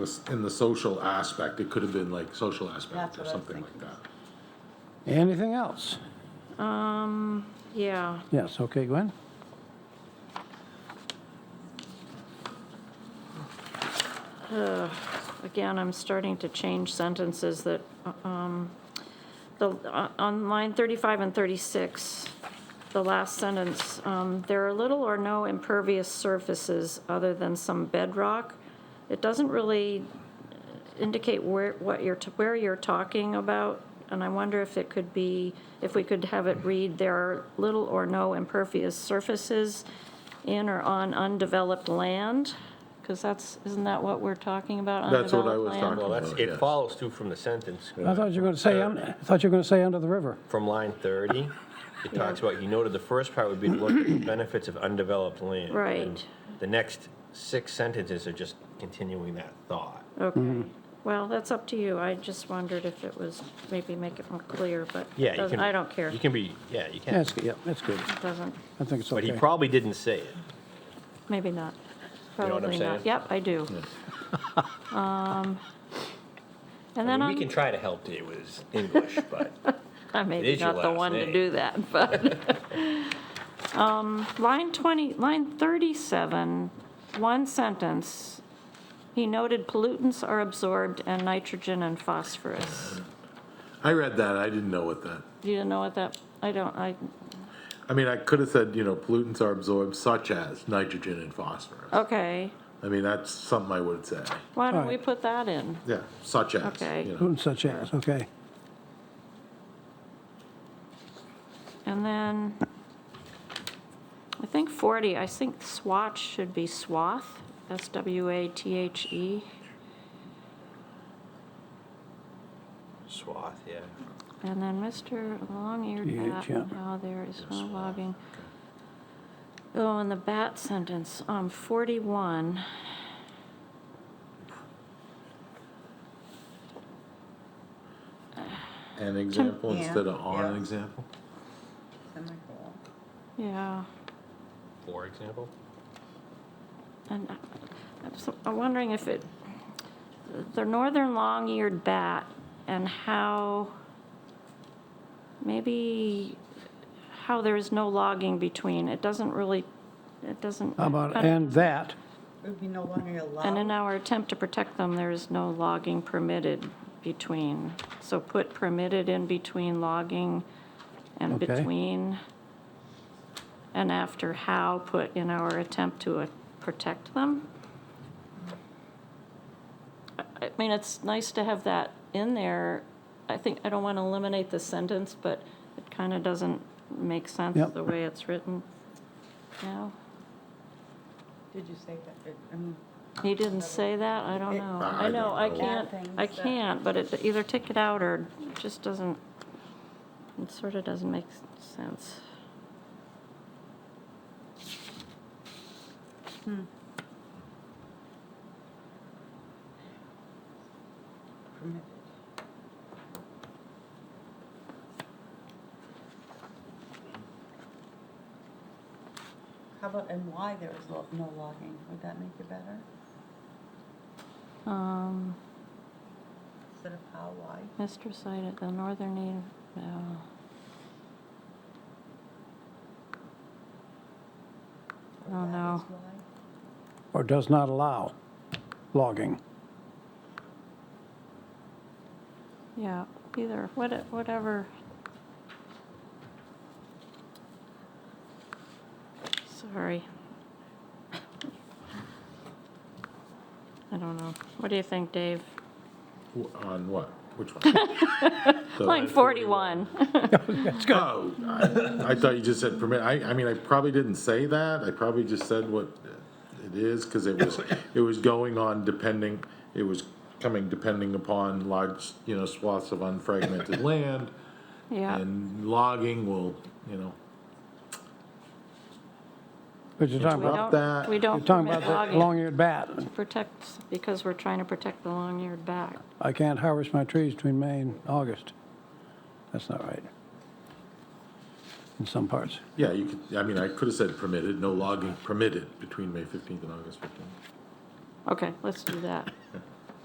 was in the social aspect, it could have been like social aspect That's or what I was something like that. Anything else? Um, yeah, Yes, okay, Gwen? again, I'm starting to change sentences that, um, the, uh, on line 35 and 36, the last sentence, um, there are little or no impervious surfaces other than some bedrock. It doesn't really indicate where, what you're, t- where you're talking about, and I wonder if it could be, if we could have it read, there are little or no impervious surfaces in or on undeveloped land, because that's, isn't that what we're talking about, That's what I undeveloped was land? talking Well, that's, Yeah. it follows too from the sentence, I thought you were going to Uh, say, un- I thought you were going to say under the river. from line 30. It talks about, you noted the first part would be to look at the benefits of undeveloped land. Right. And The next six sentences are just continuing that thought. Okay, well, that's up to you, I just wondered if it was, maybe make it more clear, but Yeah, you doesn't- can. I don't care, You it can be, yeah, you can. That's, yeah, that's good. doesn't, I think it's But he okay. probably didn't say it. maybe not. You know what I'm Probably not. saying? Yep, I do. Um, And I then mean, on. we can try to help you with his English, but I may be is your not the last one to name. do that, but. Um, Line 20, line 37, one sentence, he noted pollutants are absorbed and nitrogen and phosphorus. I read that, I didn't know what that, Do you know what that, I don't, I, I mean, I could have said, you know, pollutants are absorbed such as nitrogen and phosphorus. okay, I mean, that's something I would say, why don't we Alright. put that in? yeah, such as, Okay. you know. Who Such as, okay. And then, I think 40, I think swatch should be swath, S-W-A-T-H-E. swath, yeah. And then Mr. Yeah, Long-eared Bat, yeah. now oh, there is no logging. Oh, and the bat sentence, um, 41. An example Yeah. instead of on an Yeah. example? Semicolon. Yeah, For example. and I- I'm so- I'm wondering if it, the northern long-eared bat and how, maybe how there is no logging between, it doesn't really, it doesn't. How about, I don't- and that, It would be no longer And in allowed. our attempt to protect them, there is no logging permitted between. So put permitted in between logging and Okay. between. And after how, put in our attempt to uh, protect them. I I mean, it's nice to have that in there. I think, I don't want to eliminate the sentence, but it kind of doesn't make sense Yep. the way it's written now. Did you say that? I mean, He didn't say that, I don't It- know. I I know, don't I know. can't, Bad things I that- can't, but it, either take it out or it just doesn't, it sort of doesn't make s- sense. permitted. How about, and why there is lo- no logging? Would that make it better? Um, Instead of how, why? Mr. Site at the northern uh, end, no. or Oh, that no. is why? or does not allow logging. yeah, either, what- whatever. Sorry. I don't know. What do you think, Dave? W- On what? Which one? The- Line 41. Oh, I, I thought you just said permit, I, I mean, I probably didn't say that, I probably just said what it is, cause it was, it was going on depending, it was coming depending upon large, you know, swaths of unfragmented land, Yeah. and logging will, you know, But you're We talking about, About don't, that- we you're don't talking permit about the logging, long-eared bat. protects, because we're trying to protect the long-eared bat. I can't harvest my trees between May and August. That's not right. In some parts. yeah, you could, I mean, I could've said permitted, no logging permitted between May fifteenth and August fifteenth. Okay, let's do that.